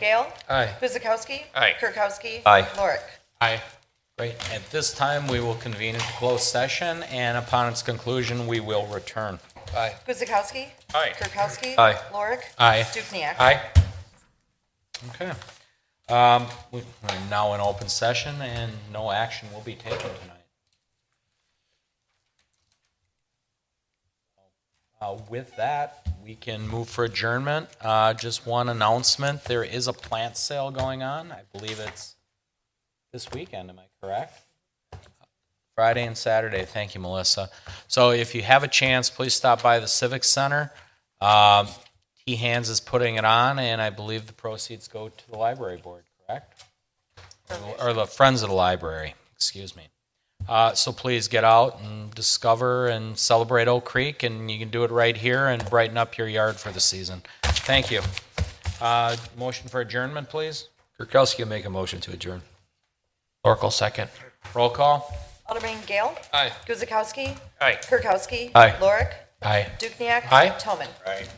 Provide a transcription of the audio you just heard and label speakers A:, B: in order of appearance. A: Gale.
B: Aye.
A: Guzekowski.
C: Aye.
A: Kirkowski.
D: Aye.
A: Lorick.
C: Aye.
D: Great. At this time, we will convene into closed session, and upon its conclusion, we will return.
B: Aye.
A: Guzekowski.
C: Aye.
A: Kirkowski.
D: Aye.
A: Lorick.
C: Aye.
A: Dukenyak.
C: Aye.
D: Okay. Um, we- We're now in open session, and no action will be taken tonight. Uh, With that, we can move for adjournment. Uh, Just one announcement, there is a plant sale going on. I believe it's this weekend, am I correct? Friday and Saturday. Thank you, Melissa. So if you have a chance, please stop by the Civic Center. Um, T Hands is putting it on, and I believe the proceeds go to the library board, correct? Or or the Friends of the Library, excuse me. Uh, so please get out and discover and celebrate Oak Creek, and you can do it right here and brighten up your yard for the season. Thank you. Uh, motion for adjournment, please.
B: Kirkowski will make a motion to adjourn.
C: Oracle second.
D: Roll call.
A: Alderman Gale.
B: Aye.
A: Guzekowski.
C: Aye.
A: Kirkowski.
B: Aye.
A: Lorick.
C: Aye.
A: Dukenyak.
C: Aye.
A: Toman.
D: Right.